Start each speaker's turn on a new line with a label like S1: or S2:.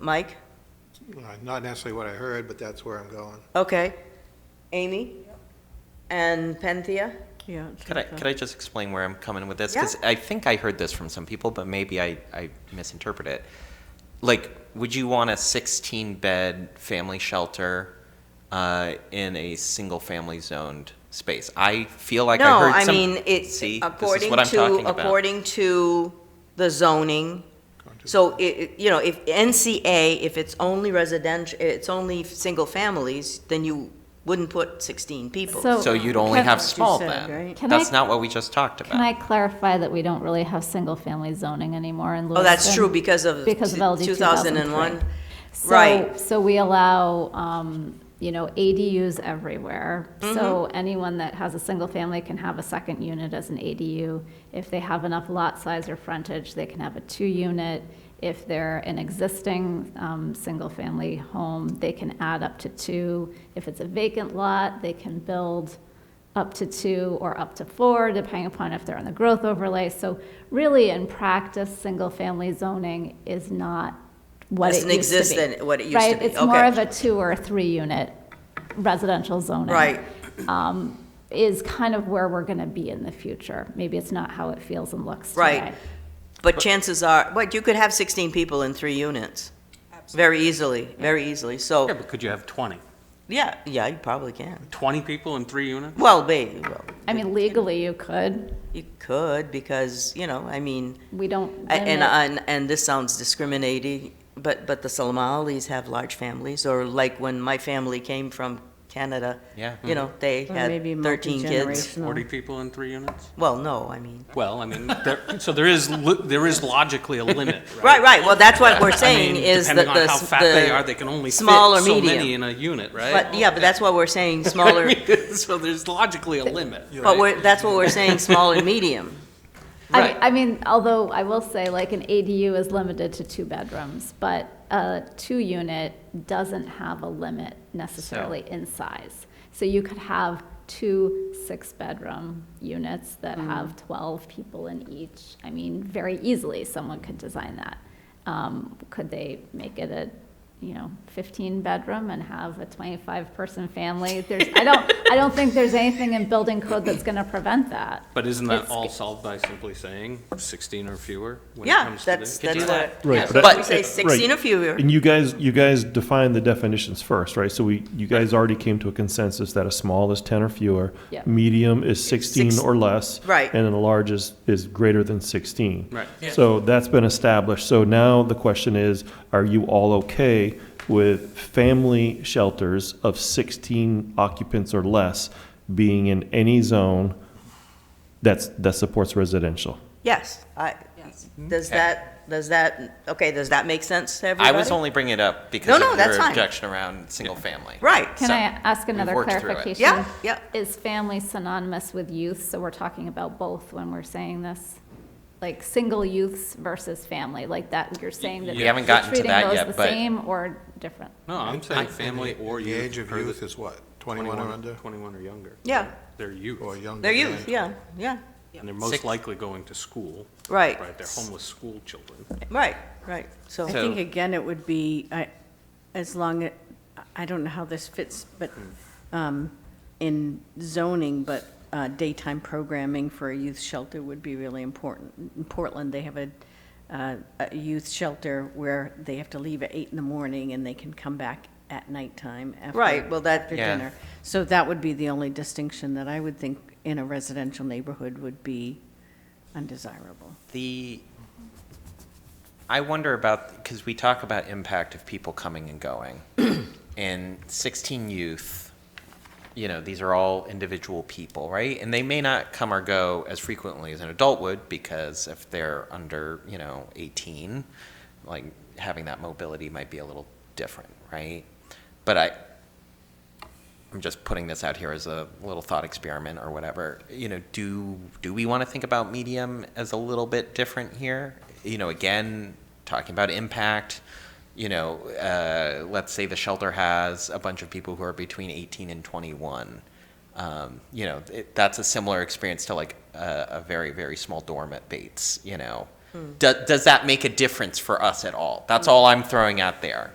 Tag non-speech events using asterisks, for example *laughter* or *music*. S1: Mike?
S2: Uh, Not necessarily what I heard, but that's where I'm going.
S1: Okay. Amy? And Penthea?
S3: Yeah.
S4: Could I, could I just explain where I'm coming with this?
S1: Yeah.
S4: Because I think I heard this from some people, but maybe I, I misinterpret it. Like, would you want a 16 bed family shelter uh, in a single family zoned space? I feel like
S1: No,
S4: I heard
S1: I
S4: some.
S1: mean, it's
S4: see, this is
S1: according
S4: what I'm
S1: to,
S4: talking
S1: according to the zoning.
S2: Going to-
S1: So it, it- you know, if NCA, if it's only residential, it's only single families, then you wouldn't put 16 people.
S4: about. So
S5: So-
S4: you'd only
S3: Can-
S4: have
S3: What you
S4: small
S3: said,
S4: then.
S3: right?
S5: Can
S4: That's
S5: I-
S4: not what we just talked about.
S5: Can I clarify that we don't really have single-family zoning anymore in
S1: Oh,
S5: Lewiston?
S1: that's true because of
S5: Because of LD
S1: 2001.
S5: 2001.
S1: right.
S5: So, so we allow, um, you know, ADUs everywhere. So
S1: Mm-hmm.
S5: anyone that has a single family can have a second unit as an ADU. If they have enough lot size or frontage, they can have a two-unit. If they're an existing, um, single-family home, they can add up to two. If it's a vacant lot, they can build up to two or up to four, depending upon if they're on the growth overlay. So really, in practice, single-family zoning is not what it
S1: Doesn't
S5: used to be.
S1: exist than what it used to
S5: Right,
S1: be.
S5: it's more
S1: Okay.
S5: of a two or three-unit residential zoning.
S1: Right.
S5: Is kind of where we're gonna be in the future. Maybe it's not how it feels and looks today.
S1: Right. But chances are, but you could have 16 people in three units. Very easily, very easily.
S6: Yeah,
S1: So,
S6: but could you have 20?
S1: yeah, yeah, you probably can.
S6: 20 people in three units?
S1: Well, maybe, well,
S5: I mean, legally, you could.
S1: you could because, you know, I mean,
S5: We don't
S1: A- And,
S5: limit-
S1: and, and this sounds discriminating, but, but the Somalis have large families, or like when my family came from Canada,
S4: Yeah.
S1: you know, they
S3: Or
S1: had
S3: maybe
S1: thirteen kids.
S3: multi-generational.
S6: 40 people in three units?
S1: Well, no, I mean,
S6: Well, I mean, there- so there is, li- there is logically
S1: *laughs*
S6: a limit,
S1: right,
S6: right?
S1: right, well, that's what we're
S6: I
S1: saying
S6: mean,
S1: is that the.
S6: Depending on how
S1: s-
S6: fat
S1: the
S6: they are, they can only fit
S1: small or
S6: so many
S1: medium.
S6: in a unit, right?
S1: But, yeah, but that's what we're saying, smaller,
S6: *laughs* I mean, *laughs* So there's logically a limit.
S1: but we're, that's what we're saying, small and medium.
S5: I, I mean, although I will say, like, an ADU is limited to two bedrooms, but a two-unit doesn't have a limit necessarily in size. So you could have two six-bedroom units that have 12 people in each. I mean, very easily, someone could design that. Um, Could they make it a, you know, 15-bedroom and have a 25-person family? There's, I don't, I don't think there's anything in building code that's going to prevent that.
S6: But isn't that
S5: It's-
S6: all solved by simply saying 16 or fewer when it
S1: Yeah,
S6: comes to
S1: that's,
S6: this?
S4: Could
S1: that's
S4: do
S1: what,
S4: that.
S7: Right,
S1: yeah,
S7: but
S1: so
S4: I-
S1: we say
S7: right.
S1: sixteen or fewer,
S7: And you guys, you guys define the definitions first, right? So we, you guys already came to a consensus that a small is ten or fewer,
S5: Yeah.
S7: medium is sixteen
S1: Six-
S7: or less,
S1: Right.
S7: and then a large is is greater than sixteen.
S6: Right.
S7: So that's been established. So now the question is, are you all okay with family shelters of sixteen occupants or less being in any zone that's that supports residential?
S1: yes, I, does
S4: Okay.
S1: that, does that, okay, does that make sense to everybody?
S4: I was only bringing it up because
S1: No,
S4: of
S1: no,
S4: your
S1: that's fine.
S4: objection around single family.
S1: Right,
S5: Can
S4: So,
S5: I ask
S4: we've
S5: another
S4: worked through it.
S5: clarification?
S1: yeah, yeah,
S5: Is family synonymous with youth? So we're talking about both when we're saying this? Like, single youths versus family, like that, you're saying that
S4: We haven't gotten to
S5: we're treating
S4: that
S5: those
S4: yet,
S5: the
S4: but-
S5: same or different?
S6: No, I'm saying family or
S2: The
S6: youth.
S2: age of
S6: or the-
S2: youth is what, 21 or under,
S6: 21 or younger.
S1: Yeah.
S6: They're youth.
S2: or younger?
S1: they're
S2: than-
S1: youth, yeah, yeah,
S6: And they're most
S4: Six-
S6: likely going to school.
S1: Right.
S6: Right, they're homeless school children.
S1: right, right, so.
S3: I think, again, it would be, I, as long, a- I don't know how this fits, but, um, in zoning, but uh, daytime programming for a youth shelter would be really important. In Portland, they have a, uh, a youth shelter where they have to leave at eight in the morning and they can come back at nighttime after.
S1: Right, well, that-
S3: After
S4: Yeah.
S3: dinner. So that would be the only distinction that I would think in a residential neighborhood would be undesirable.
S4: The, I wonder about, because we talk about impact of people coming and going. And 16 youth, you know, these are all individual people, right? And they may not come or go as frequently as an adult would because if they're under, you know, 18, like having that mobility might be a little different, right? But I, I'm just putting this out here as a little thought experiment or whatever. You know, do do we want to think about medium as a little bit different here? You know, again, talking about impact. You know, uh, let's say the shelter has a bunch of people who are between 18 and 21. Um, you know, it, that's a similar experience to like a, a very very small dorm at Bates. You know, Do- Does that make a difference for us at all? That's all I'm throwing out there.